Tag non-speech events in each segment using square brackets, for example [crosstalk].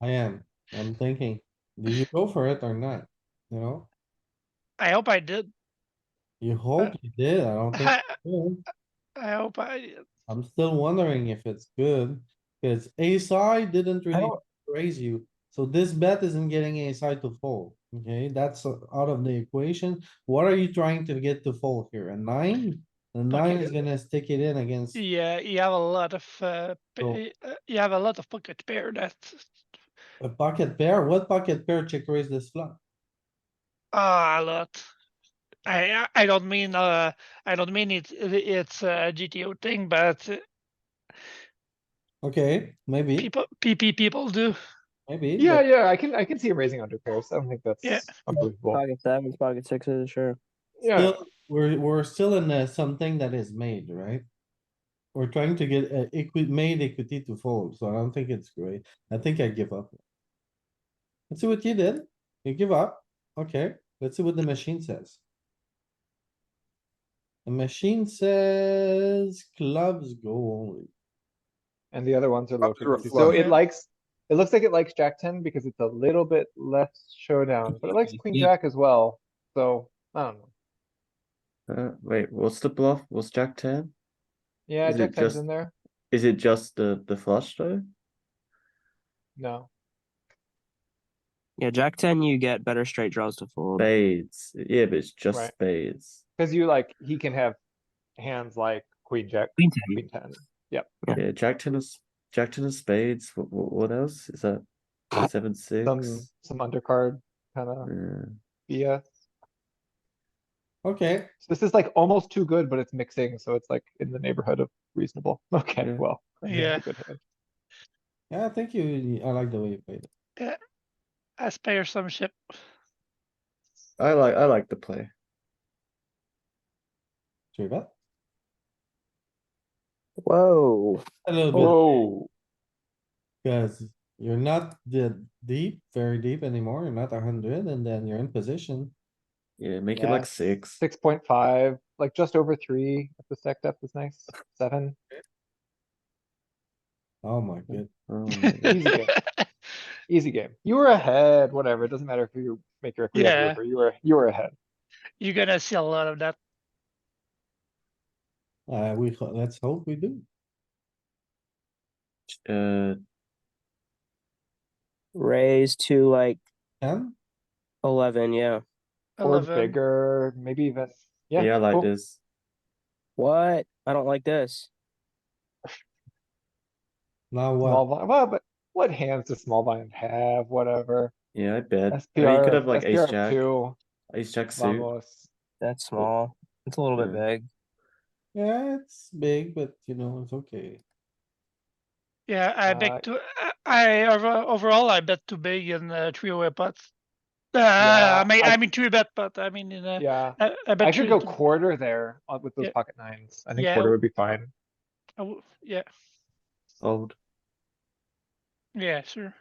I am, I'm thinking, do you go for it or not? You know, I hope I did. [laughs] you hope you did, I don't think, I, you do. I hope I did. I'm still wondering if it's good. Cause ace high didn't really raise you, so this bet isn't getting ace high to fold, okay? That's uh, out of the equation. What are you trying to get to fold here? A nine? The nine is gonna stick it in against, Yeah, you have a lot of uh, p- So- uh, you have a lot of pocket pair that a pocket pair, what pocket pair check raise this flop? ah a lot. I I- I don't mean uh I don't mean it it's a GTO thing, but uh, Okay, maybe, people PP people [laughs] do. maybe. Yeah, but- yeah, I can, I can see him raising under pairs. I don't think Yeah. that's unbelievable. Pocket sevens, pocket sixes, sure. Yeah, Still, we're, we're still in uh, something that is made, right? We're trying to get uh, equi- made equity to fold, so I don't think it's great. I think I give up. Let's see what you did. You give up. Okay, let's see what the machine says. The machine says clubs go only. and the other ones are low Up to a frequency. So flush. it likes, it looks like it likes jack ten because it's a little bit less showdown, but it likes queen jack as well. So, I don't know. Uh, wait, what's the bluff? What's Jack ten? Yeah, Is it jack ten's just- in there. Is it just the the flush though? No, Yeah, Jack ten, you get better straight draws to fold. Spades. Yeah, but it's just Right. spades. cuz you like, he can have hands like queen jack, Queen ten. queen ten. Yeah. Yeah, Jack ten is Jack ten of spades. What, what what else is that? Seven six. Some, some undercard kinda Yeah. BS. Okay, So This is like almost too good, but it's mixing, so it's like in the neighborhood of reasonable. [laughs] Okay, Yeah. well. I think it's a Yeah. good hand. yeah, I think you, I like the way you played it. I spare some ship. [laughs] I like I like the play. Three bet. Whoa. A little bit. Oh. Whoa. Cause you're not the deep, very deep anymore, you're not a hundred, and then you're in position. Yeah, make it Yeah. like six. Six point five, like just over three, if the stack depth is nice, seven. Oh my Hmm. god, Oh [laughs] my God. Easy game, easy game. You were ahead, whatever, it doesn't matter if you make your equity Yeah. or river, you were, you were ahead. [laughs] You're gonna see a lot of that. uh, we, ho- let's hope we do. uh, Raise to like Ten, eleven, yeah. Or 11. bigger, maybe even, yeah. yeah, I like cool. this. What? I don't like this. now Small what? blind, well, but what hands does small blind have, whatever? Yeah, I bet. I mean, you SPR, could have like ace SPR jack, two, ace jack suit. vamos. That's small. It's a little bit Yeah. big. Yeah, it's big, but you know, it's okay. Yeah, I Uh, bet too. I, I over- overall I bet too big in uh, three-way pots. Uh, Yeah, I mean, I- I mean three bet, but I mean in uh, a, Yeah, I, I bet I should three go to- quarter there uh, with those Yeah. pocket nines. I think Yeah. quarter would be fine. I w- yeah, Old. yeah, sure.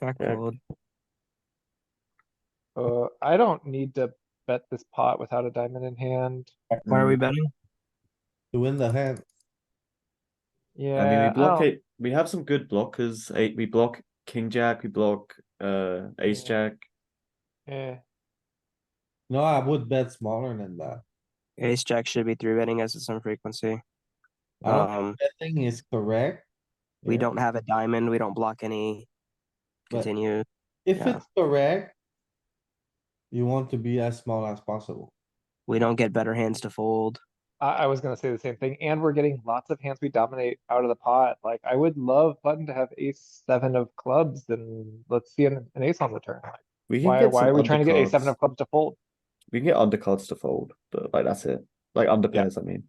Jack Yeah. fold. Uh, I don't need to bet this pot without a diamond in hand. Why are we betting? To win the hand, Yeah. Oh, I mean, we block don't- it. We have some good blockers. Eight. We block king jack. We block uh ace Yeah. jack. eh, no, I would bet smaller than that. Ace Jack should be three betting us at some frequency. I don't think Um, Betting is correct. we Yeah. don't have a diamond. We don't block any. But- Continue. If yeah. it's correct. You want to be as small as possible. We don't get better hands to fold. I, I was gonna say the same thing, and we're getting lots of hands we dominate out of the pot. Like, I would love button to have ace seven of clubs, and let's see an, an ace on the turn. Like, We can Why, get why some are we trying to get ace seven undercards. of clubs to fold? We can get undercards to fold, but like that's it. Like under Yeah. pairs, I mean.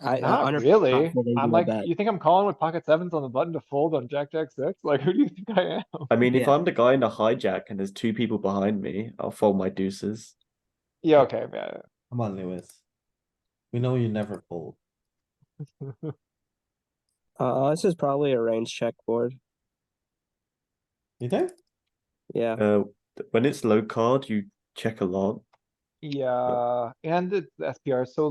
I, Not under- really. confident I'm you like, bet. you think I'm calling with pocket sevens on the button to fold on jack, jack six? [laughs] Like, who do you think I am? I mean, if Yeah. I'm the guy in the hijack and there's two people behind me, I'll fold my deuces. Yeah, okay, yeah. Come on, Lewis. We know you never fold. Uh, this is probably a range check board. You think? Yeah. Uh, th- when it's low card, you check a lot. Yeah, and the the SPR is so